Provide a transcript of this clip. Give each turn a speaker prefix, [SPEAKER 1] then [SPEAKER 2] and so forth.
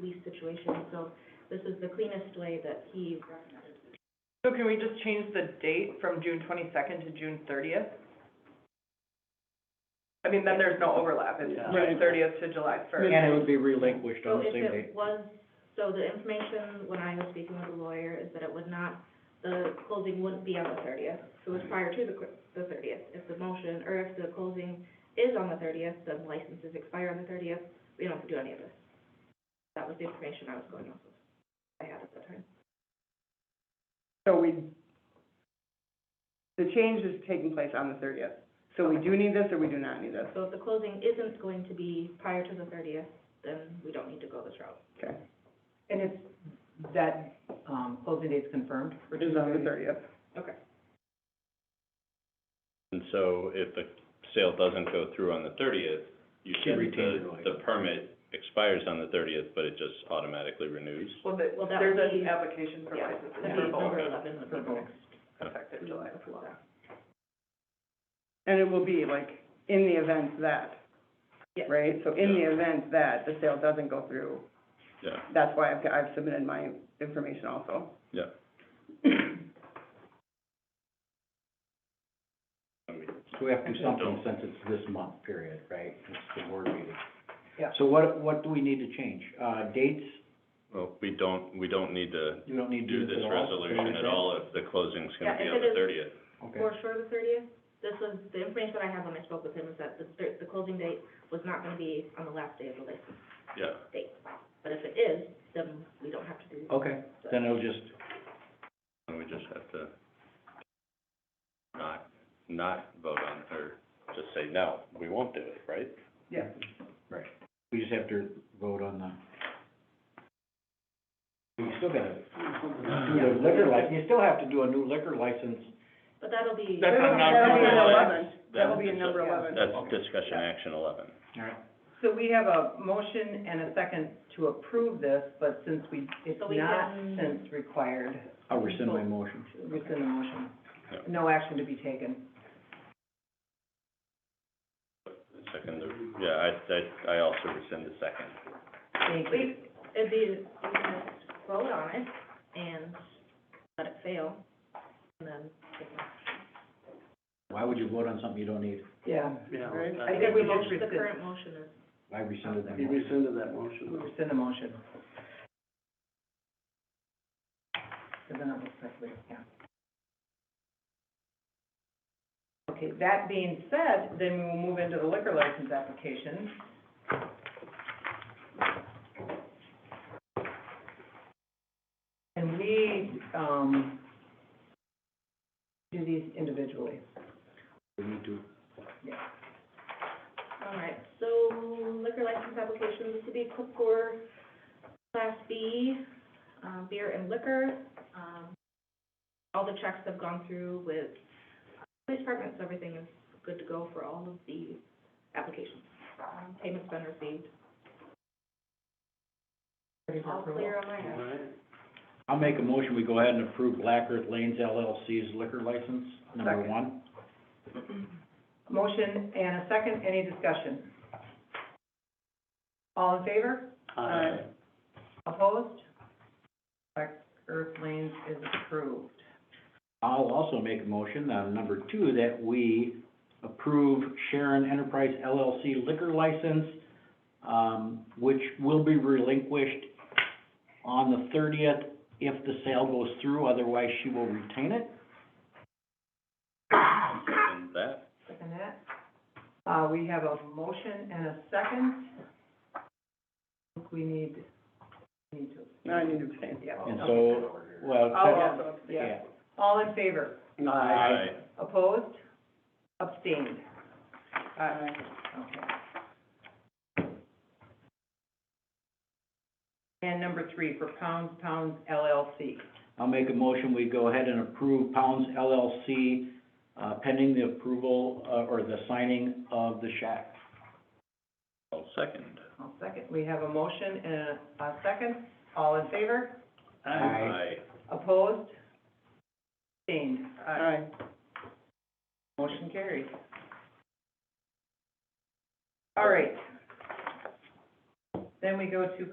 [SPEAKER 1] lease situation, so this is the cleanest way that he recommended.
[SPEAKER 2] So can we just change the date from June twenty-second to June thirtieth? I mean, then there's no overlap, it's
[SPEAKER 3] Yeah.
[SPEAKER 2] June thirtieth to July first.
[SPEAKER 3] And it would be relinquished
[SPEAKER 1] So
[SPEAKER 3] on the
[SPEAKER 1] if
[SPEAKER 3] same day.
[SPEAKER 1] it was, so the information when I was speaking with the lawyer is that it would not, the closing wouldn't be on the thirtieth. It
[SPEAKER 3] Mm-hmm.
[SPEAKER 1] was prior to the, cl- the thirtieth. If the motion, or if the closing is on the thirtieth, then licenses expire on the thirtieth, we don't have to do any of this. That was the information I was going off of, I had at the time.
[SPEAKER 4] So we, the change is taking place on the thirtieth. So we do need this or we do not need this?
[SPEAKER 1] So if the closing isn't going to be prior to the thirtieth, then we don't need to go this route.
[SPEAKER 4] Okay,
[SPEAKER 5] And it's, that, um, closing date's confirmed for
[SPEAKER 4] it is on the
[SPEAKER 5] Tuesday?
[SPEAKER 4] thirtieth.
[SPEAKER 1] Okay.
[SPEAKER 6] And so if the sale doesn't go through on the thirtieth, you
[SPEAKER 3] She
[SPEAKER 6] said
[SPEAKER 3] retained her
[SPEAKER 6] the,
[SPEAKER 3] license.
[SPEAKER 6] the permit expires on the thirtieth, but it just automatically renews.
[SPEAKER 2] Well, the-
[SPEAKER 1] Well, that
[SPEAKER 2] there's
[SPEAKER 1] would be-
[SPEAKER 2] an application for
[SPEAKER 1] Yeah,
[SPEAKER 2] license
[SPEAKER 1] that'd
[SPEAKER 2] for
[SPEAKER 1] be
[SPEAKER 2] both,
[SPEAKER 1] number eleven would be
[SPEAKER 2] For
[SPEAKER 1] the
[SPEAKER 2] both.
[SPEAKER 1] next.
[SPEAKER 2] effective July
[SPEAKER 1] approve
[SPEAKER 2] first.
[SPEAKER 1] that.
[SPEAKER 4] And it will be like, in the event that,
[SPEAKER 1] Yes.
[SPEAKER 4] right? So in the event that the sale doesn't go through,
[SPEAKER 6] Yeah,
[SPEAKER 4] that's why I've, I've submitted my information also.
[SPEAKER 6] yeah. I mean,
[SPEAKER 3] So we have to do something
[SPEAKER 6] Don't.
[SPEAKER 3] since it's this month period, right? It's the board meeting.
[SPEAKER 5] Yeah.
[SPEAKER 3] So what, what do we need to change? Uh, dates?
[SPEAKER 6] Well, we don't, we don't need to
[SPEAKER 3] You don't need to
[SPEAKER 6] do this
[SPEAKER 3] at all?
[SPEAKER 6] resolution at all if the closing's gonna
[SPEAKER 1] Yeah,
[SPEAKER 6] be
[SPEAKER 1] if
[SPEAKER 6] on
[SPEAKER 1] it
[SPEAKER 6] the
[SPEAKER 1] is-
[SPEAKER 6] thirtieth.
[SPEAKER 3] Okay,
[SPEAKER 1] for sure the thirtieth. This was, the information that I had when I spoke with him is that the, thir- the closing date was not gonna be on the last day of the license
[SPEAKER 6] Yeah,
[SPEAKER 1] date. But if it is, then we don't have to do.
[SPEAKER 3] okay, then it'll just,
[SPEAKER 6] and we just have to not, not vote on, it, or just say, no, we won't do it, right?
[SPEAKER 3] we just have to vote on the, we still gotta do the liquor license, you still have to do a new liquor license.
[SPEAKER 1] But that'll be.
[SPEAKER 6] That's on
[SPEAKER 4] That'll be in
[SPEAKER 6] non-criminal
[SPEAKER 4] eleven.
[SPEAKER 6] acts.
[SPEAKER 4] That will be
[SPEAKER 6] That's
[SPEAKER 4] in number eleven.
[SPEAKER 6] That's
[SPEAKER 3] Okay.
[SPEAKER 6] discussion action eleven.
[SPEAKER 3] All right.
[SPEAKER 5] So we have a motion and a second to approve this, but since we, it's
[SPEAKER 1] So we
[SPEAKER 5] not
[SPEAKER 1] can-
[SPEAKER 5] since required,
[SPEAKER 3] I'll rescind my motion.
[SPEAKER 5] rescind the motion.
[SPEAKER 6] Yeah.
[SPEAKER 5] No action to be taken.
[SPEAKER 6] Second, yeah, I, I, I also rescind the second.
[SPEAKER 5] Thank you.
[SPEAKER 1] We, it'd be, we can just vote on it and let it fail, and then.
[SPEAKER 3] Why would you vote on something you don't need?
[SPEAKER 5] Yeah,
[SPEAKER 4] Right?
[SPEAKER 5] I think we
[SPEAKER 1] The
[SPEAKER 5] just
[SPEAKER 1] motion- The
[SPEAKER 5] rescind,
[SPEAKER 1] current motion is,
[SPEAKER 3] I rescinded that
[SPEAKER 7] He
[SPEAKER 3] motion.
[SPEAKER 7] rescinded that
[SPEAKER 5] we
[SPEAKER 7] motion.
[SPEAKER 5] rescind the motion. So then it looks like we, yeah. Okay, that being said, then we will move into the liquor license application. And we, um, do these individually.
[SPEAKER 3] We need to,
[SPEAKER 1] all right, so liquor license applications, this would be Cookcore Class B, um, beer and liquor. Um, all the checks have gone through with police departments, everything is good to go for all of the applications. Um, Payment's been received,
[SPEAKER 5] Ready for
[SPEAKER 1] all
[SPEAKER 5] approval.
[SPEAKER 1] clear on my
[SPEAKER 7] All
[SPEAKER 1] end.
[SPEAKER 7] right.
[SPEAKER 3] I'll make a motion, we go ahead and approve Black Earth Lanes LLC's liquor license, number
[SPEAKER 5] Second.
[SPEAKER 3] one.
[SPEAKER 5] Motion and a second, any discussion? All in favor?
[SPEAKER 7] Aye.
[SPEAKER 5] Opposed? Black Earth Lanes is approved.
[SPEAKER 3] I'll also make a motion, uh, number two, that we approve Sharon Enterprise LLC liquor license, um, which will be relinquished on the thirtieth if the sale goes through, otherwise she will retain it.
[SPEAKER 6] Rescind that,
[SPEAKER 5] Second that. Uh, we have a motion and a second. I think we need, we need to,
[SPEAKER 4] Now I need to abstain.
[SPEAKER 5] yeah.
[SPEAKER 3] And so, well,
[SPEAKER 5] I'll
[SPEAKER 3] yeah.
[SPEAKER 5] also abstain. All in favor?
[SPEAKER 6] aye,
[SPEAKER 5] Opposed? Abstained?
[SPEAKER 4] Aye.
[SPEAKER 5] Okay. And number three, for Pounds Pounds LLC.
[SPEAKER 3] I'll make a motion, we go ahead and approve Pounds LLC, uh, pending the approval, uh, or the signing of the shack.
[SPEAKER 6] I'll second.
[SPEAKER 5] I'll second. We have a motion and a- a second. All in favor?
[SPEAKER 6] Aye.
[SPEAKER 5] Opposed? Abstained? Uh,
[SPEAKER 4] Aye.
[SPEAKER 5] Motion carries. All right. Then we go to